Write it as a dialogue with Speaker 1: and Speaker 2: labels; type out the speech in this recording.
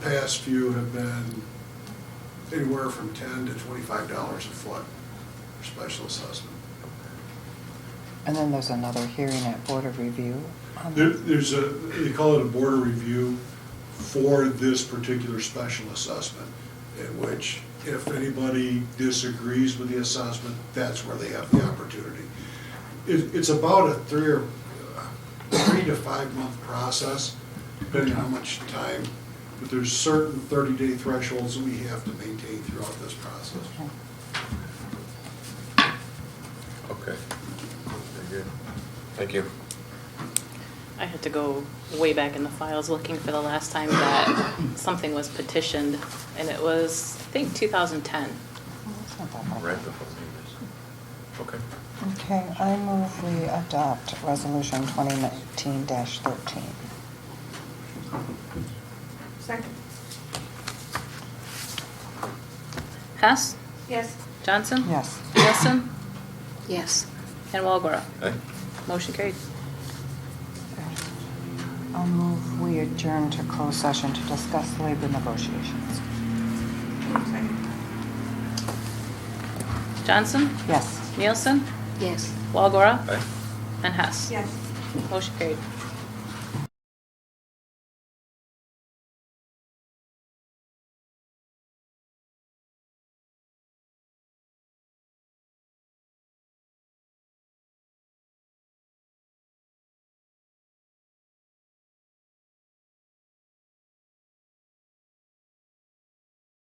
Speaker 1: past few have been anywhere from ten to twenty-five dollars a foot for special assessment.
Speaker 2: And then there's another hearing at Board of Review. on
Speaker 1: There,
Speaker 2: that.
Speaker 1: there's a, they call it a board review for this particular special assessment, in which if anybody disagrees with the assessment, that's where they have the opportunity. It, it's about a three or, uh, three to five month process, depending on how much time, but there's certain thirty-day thresholds that we have to maintain throughout this process.
Speaker 2: Okay.
Speaker 3: Okay, very good. Thank you.
Speaker 4: I had to go way back in the files looking for the last time that something was petitioned, and it was, I think, 2010.
Speaker 2: Well, that's not that bad.
Speaker 3: Right before the news. Okay,
Speaker 2: Okay, I move we adopt Resolution 2019-13.
Speaker 5: Second.
Speaker 4: Hess?
Speaker 5: Yes.
Speaker 4: Johnson?
Speaker 2: Yes.
Speaker 4: Wilson?
Speaker 5: Yes.
Speaker 4: And Walagora?
Speaker 3: aye,
Speaker 4: Motion carried.
Speaker 2: I'll move we adjourn to closed session to discuss labor negotiations.
Speaker 4: Johnson?
Speaker 2: Yes.
Speaker 4: Nielsen?
Speaker 5: Yes.
Speaker 4: Walagora?
Speaker 3: aye.
Speaker 4: And Hess?
Speaker 5: Yes.
Speaker 4: Motion carried.